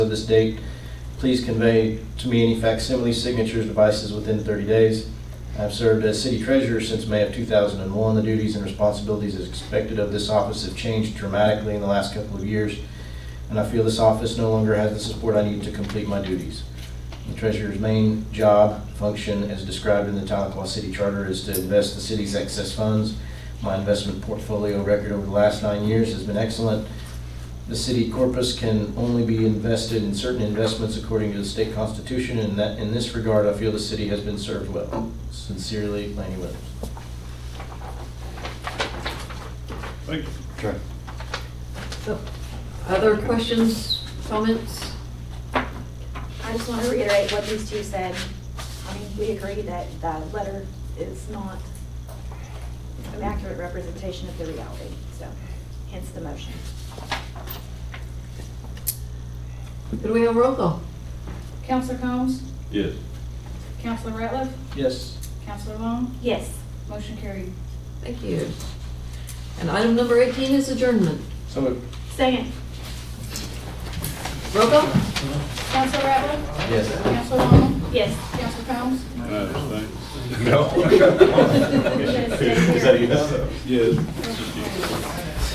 of this date, please convey to me any facsimile signatures, devices within 30 days. I've served as city treasurer since May of 2001. The duties and responsibilities as expected of this office have changed dramatically in the last couple of years, and I feel this office no longer has the support I need to complete my duties. The treasurer's main job, function, as described in the Tahlequah City Charter, is to invest the city's excess funds. My investment portfolio record over the last nine years has been excellent. The city corpus can only be invested in certain investments according to the state constitution, and that, in this regard, I feel the city has been served well. Sincerely, Lanny Williams. Thank you. Sure. So, Other questions, comments? I just want to reiterate what these two said. I mean, we agree that the letter is not an accurate representation of the reality, so hence the motion. Do we have roll call? Counselor Combs? Yes. Counselor Ratliff? Yes. Counselor Long? Yes. Motion carried. Thank you. And item number 18 is adjournment. So moved. Second. Roll call? Counselor Ratliff? Yes. Counselor Long? Yes. Counselor Combs? No, thanks. No. Yes. Is that a yes? Yes. Motion carried.